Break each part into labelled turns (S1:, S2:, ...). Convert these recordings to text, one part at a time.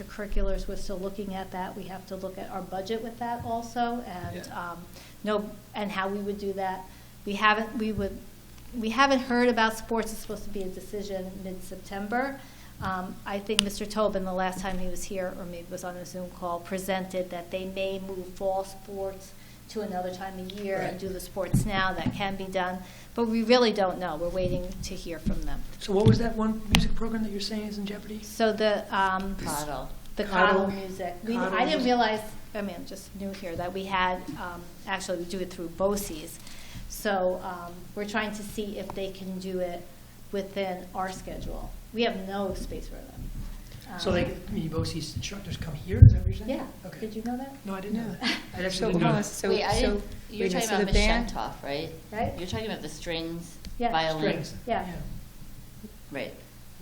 S1: extracurriculars, we're still looking at that. We have to look at our budget with that also, and,
S2: Yeah.
S1: um, no, and how we would do that. We haven't, we would, we haven't heard about sports, it's supposed to be a decision mid-September. Um, I think Mr. Tobin, the last time he was here, or maybe it was on a Zoom call, presented that they may move fall sports to another time of year and
S2: Right.
S1: do the sports now, that can be done, but we really don't know, we're waiting to hear from them.
S2: So what was that one music program that you're saying is in jeopardy?
S1: So the, um,
S3: Coddle.
S1: the
S2: Coddle.
S1: coddle music, we,
S2: Coddle
S1: I didn't
S2: music.
S1: realize, I mean, I'm just new here, that we had, um, actually, we do it through BOCES. So, um, we're trying to see if they can do it within our schedule. We have no space for them.
S2: So
S1: Um,
S2: like, I mean, both these instructors come here, is that what you're saying?
S1: Yeah,
S2: Okay.
S1: did you know that?
S2: No, I didn't know that. I
S4: So
S2: actually didn't
S4: hold
S2: know.
S4: on,
S2: that.
S4: so,
S3: Wait, I
S4: so,
S3: didn't, you're
S4: wait a minute,
S3: talking
S4: so
S3: about
S4: the
S3: Miss
S4: band?
S3: Shentoff, right?
S1: Right.
S3: You're talking about the strings,
S1: Yeah.
S3: violin,
S2: Strings.
S1: Yeah.
S3: right?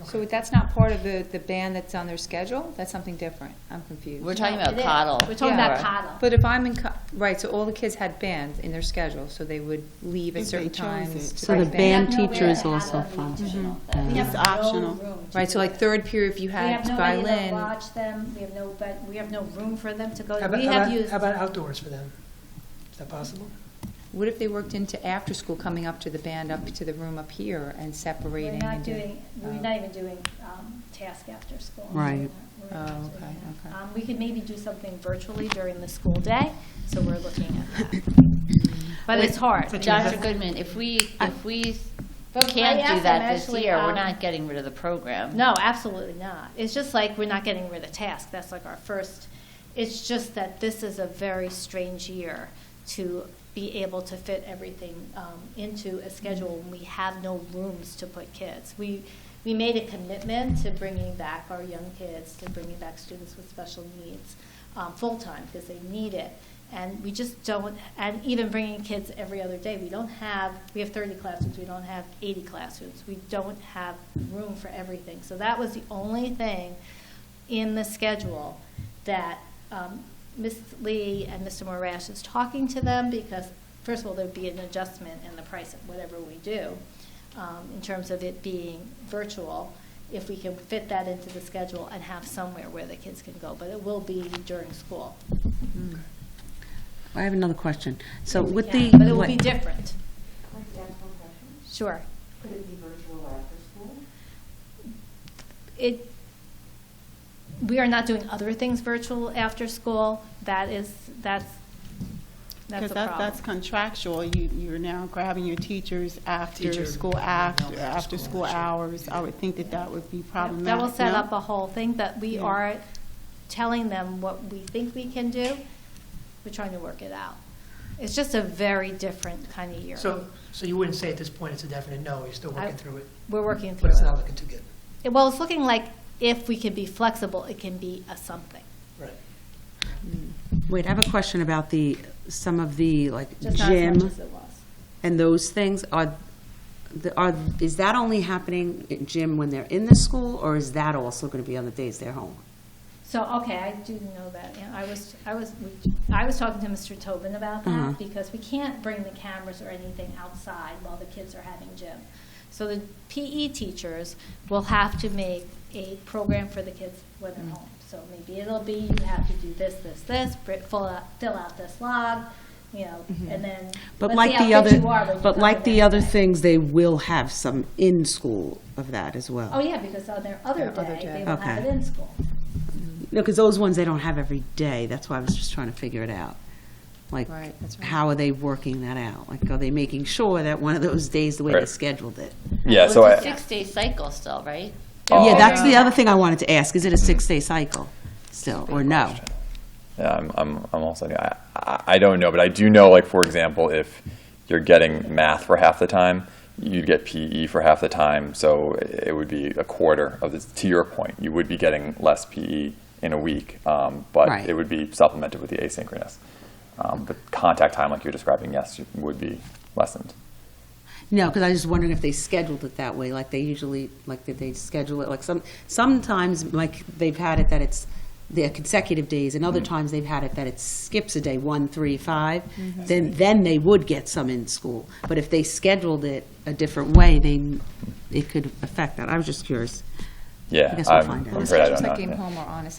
S4: So that's not part of the, the band that's on their schedule? That's something different? I'm confused.
S3: We're talking
S1: It
S3: about
S1: is.
S3: coddle.
S1: We're talking
S4: Yeah.
S1: about coddle.
S4: But if I'm in, co- right, so all the kids had bands in their schedule, so they would leave at
S5: If they
S4: certain
S5: chose
S4: times.
S5: it.
S4: to
S5: So
S4: play
S5: the band
S1: We have
S5: teacher is
S1: nowhere to
S5: also
S1: have them.
S5: fun.
S3: Traditional,
S5: Mhm.
S3: that
S5: Yeah.
S1: We have
S5: It's
S1: no
S5: optional.
S1: room to
S4: Right, so
S1: do
S4: like
S1: it.
S4: third period, if you
S1: We have
S4: had
S1: nobody to
S4: violin,
S1: watch them, we have no, but, we have no room for them to go.
S2: How
S1: to.
S2: about,
S1: We
S2: how
S1: have
S2: about-
S1: used.
S2: how about outdoors for them? Is that possible?
S4: what if they worked into after school, coming up to the band, up to the room up here and
S1: We're
S4: separating?
S1: not
S4: and doing-
S1: doing, we're
S4: Oh.
S1: not even doing um, task after school.
S5: Right.
S1: We're not
S4: Oh,
S1: doing
S4: okay,
S1: that.
S4: okay.
S1: Um, We could maybe do something virtually during the school day, so we're looking at that.
S4: um,
S1: But it's hard.
S3: Dr. Goodman, if we, if we
S1: But I
S3: can't do
S1: asked them
S3: that this
S1: actually,
S3: year, we're
S1: um,
S3: not getting rid of the program.
S1: No, absolutely not. It's just like we're not getting rid of task. That's like our first. It's just that this is a very strange year to be able to fit everything um, into a schedule when we have no rooms to put kids. We we made a commitment to bringing back our young kids, to bringing back students with special needs um, full time because they need it. And we just don't, and even bringing kids every other day, we don't have, we have 30 classrooms, we don't have 80 classrooms. We don't have room for everything. So that was the only thing in the schedule that um, Ms. Lee and Mr. Morash is talking to them because, first of all, there'd be an adjustment in the price of whatever we do um, in terms of it being virtual, if we can fit that into the schedule and have somewhere where the kids can go. But it will be during school.
S4: Mm.
S5: I have another question. So
S1: if we
S5: with the.
S1: can. But it will
S5: what-
S1: be different.
S6: Can I ask one question?
S1: Sure.
S6: Could it be virtual after school?
S1: It, we are not doing other things virtual after school. That is, that's, that's
S5: Because
S1: a
S5: that,
S1: problem.
S5: that's contractual, you, you're now grabbing your teachers after
S2: Teacher,
S5: school,
S2: yeah,
S5: after,
S2: after
S5: after
S2: school,
S5: school
S2: sure.
S5: hours, I would think that that would be
S1: Yeah,
S5: problematic.
S1: That will set
S5: no?
S1: up a whole thing, that we
S5: Yeah.
S1: are telling them what we think we can do. We're trying to work it out. It's just a very different kind of year.
S2: So, so you wouldn't say at this point it's a definite no, you're still
S1: I-
S2: working through it,
S1: We're working through
S2: but it's not
S1: it.
S2: looking too good.
S1: It- Well, it's looking like if we can be flexible, it can be a something.
S2: Right.
S7: Wait, I have a question about the, some of the, like,
S1: Just not as much
S7: gym
S1: as it was.
S7: and those things, are, the- are, is that only happening in gym when they're in the school, or is that also gonna be on the days they're home?
S1: So, okay, I do know that. Yeah, I was, I was, I was talking to Mr. Tobin about
S7: Uh-huh.
S1: that because we can't bring the cameras or anything outside while the kids are having gym. So the PE teachers will have to make a program for the kids when they're
S7: Mm.
S1: home. So maybe it'll be, you have to do this, this, this, br- fill out, fill out this log, you know, and then.
S7: Mm-hmm. But
S1: let's
S7: like
S1: see
S7: the
S1: how fit
S7: other,
S1: you are when you
S7: but
S1: come the
S7: like the
S1: next
S7: other
S1: day.
S7: things, they will have some in-school of that as well.
S1: Oh, yeah, because on their other
S4: Their other
S1: day,
S4: day.
S1: they will have it
S7: Okay.
S1: in school.
S7: No, because those ones they don't have every day, that's why I was just trying to figure it out. Like,
S4: Right, that's right.
S7: how are they working that out? Like, are they making sure that one of those days, the way they
S8: Right.
S7: scheduled it?
S8: Yeah, so
S3: It's a
S8: I,
S3: six-day cycle still, right?
S7: Yeah,
S8: Oh.
S7: that's the other thing I wanted to ask, is it a six-day cycle still, or no?
S8: yeah, I'm, I'm, I'm also, I, I I don't know, but I do know, like, for example, if you're getting math for half the time, you'd get PE for half the time, so it would be a quarter of this, to your point, you would be getting less PE in a week, um, but
S7: Right.
S8: it would be supplemented with the asynchronous. Um, but contact time, like you're describing, yes, would be lessened.
S7: No, because I was just wondering if they scheduled it that way, like they usually, like did they schedule it, like some, sometimes, like they've had it that it's the consecutive days, and other times they've had it that it skips a day, one, three, five, then, then they would get some in school. But if they scheduled it a different way, they, it could affect that. I was just curious.
S8: Yeah,
S7: I guess we'll
S8: I'm,
S7: find out.
S8: I'm
S4: Well, the
S8: afraid I don't
S4: schedule's
S8: know.
S4: like game
S8: yeah.
S4: home or on a